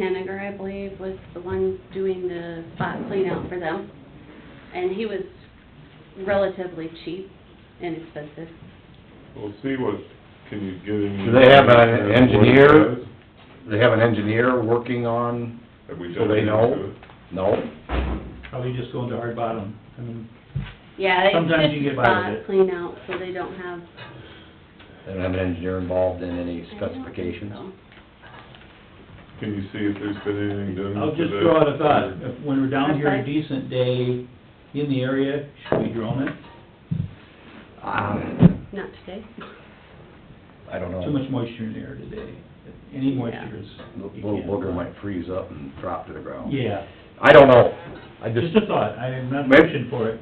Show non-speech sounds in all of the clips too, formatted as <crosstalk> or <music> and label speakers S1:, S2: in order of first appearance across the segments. S1: Henniger, I believe, was the one doing the spot clean out for them. And he was relatively cheap, inexpensive.
S2: We'll see what, can you get any...
S3: Do they have an
S2: what it
S3: engineer?
S2: says?
S3: They have an engineer working on,
S2: Have we
S3: so
S2: done
S3: they
S2: anything
S3: know?
S2: to
S3: No?
S4: Probably just go into hard bottom, I mean,
S1: Yeah, they
S4: Sometimes you
S1: just
S4: get by with
S1: spot
S4: it.
S1: clean out, so they don't have.
S3: They don't have an engineer involved in
S1: I
S3: any
S1: don't think
S3: specifications?
S1: so.
S2: it? Can you see if there's been anything done?
S4: I'll
S2: to
S4: just
S2: that?
S4: throw out a thought, if, when we're down here a
S1: Okay.
S4: decent day in the area, should we drone it?
S3: Um,
S1: Not today.
S3: I don't know.
S4: Too much moisture in the air today, any moisture is. you
S3: Little
S4: can't-
S3: booger might freeze up and drop to the ground.
S4: Yeah,
S3: I don't know. I just,
S4: just a thought, I'm not
S3: Maybe-
S4: pushing for it,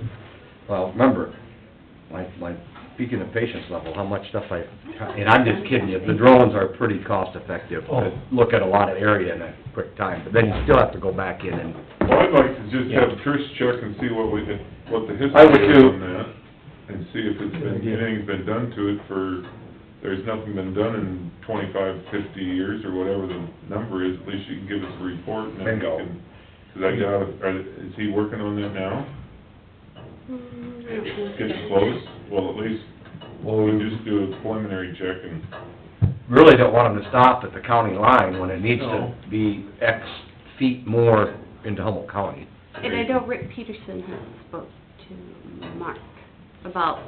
S3: well, remember, like, like, speaking of patience level, how much stuff I, and I'm just kidding you, the drones are pretty cost-effective.
S4: Oh.
S3: to Look at a lot of area in a quick time, but then you still have to go back in and,
S2: Well, I'd like to just have
S3: Yeah.
S2: Chris check and see what we, can- what the
S3: I would
S2: history is
S3: too.
S2: on that, and see if it's been,
S4: Good idea.
S2: anything's been done to it for, there's nothing been done in twenty-five, fifty years, or whatever the number is, at least you can give us a report, and then we
S3: Bingo.
S2: can... Because I doubt, if- are- is he working on that now?
S1: Mm, I don't think
S2: Getting
S1: so.
S2: close? Well, at least
S3: well,
S2: we
S3: we
S2: just do a preliminary check and...
S3: really don't want them to stop at the county line when it needs to
S2: No.
S3: be X feet more into Humboldt County.
S1: And I know Rick Peterson has spoke to Mark about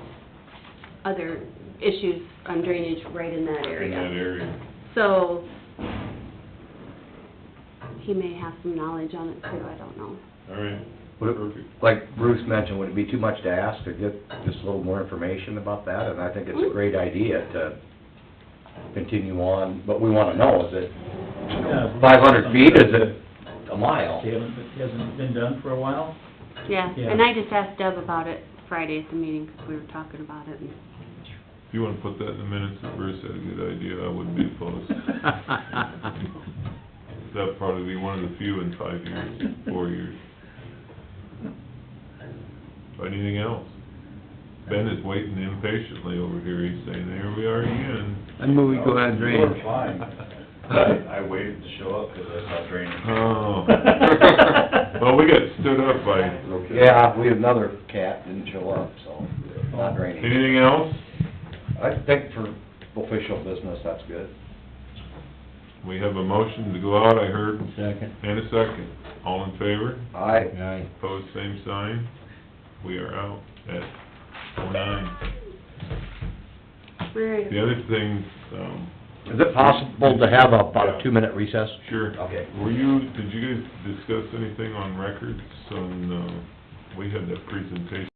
S1: other issues on drainage right in that
S2: In that
S1: area.
S2: area.
S1: So, he may have some knowledge on it too, I don't know.
S2: All right,
S3: Would it-
S2: perfect.
S3: like Bruce mentioned, would it be too much to ask to get just a little more information about that? And I think it's a great idea to continue on, but we wanna know, is it, you know,
S4: Yeah.
S3: five hundred feet, is it a mile?
S4: it hasn't, Uh, it hasn't been done for
S5: <laughs>
S4: a while.
S1: Yeah,
S4: Yeah.
S1: and I just asked Deb about it Friday at the meeting, 'cause we were talking about it and
S2: If you wanna put that in the minutes, that Bruce had a good idea, I wouldn't be opposed. That'd probably be one of the few in five years, four years. Anything else? Ben is waiting impatiently over here, he's saying, there we are again.
S6: I move we go out
S4: Oh,
S6: and drain.
S5: You're fine. I I waited to show up because I saw
S3: <laughs>
S5: drainage.
S2: Oh,
S4: <laughs>
S2: well, we got stood up by,
S3: Yeah, we had another cat, didn't show up, so, not raining.
S2: anything else?
S3: I think for official business, that's good.
S2: We have a motion to go out, I heard,
S6: Second.
S2: and a second. All in favor?
S3: Aye.
S6: Aye.
S2: Opposed, same sign. We are out at four nine.
S1: Alright.
S2: The other thing, um,
S3: Is it possible to have about a two-minute recess?
S2: sure.
S3: Okay.
S2: Were you, did you guys discuss anything on records on, uh, we had that presentation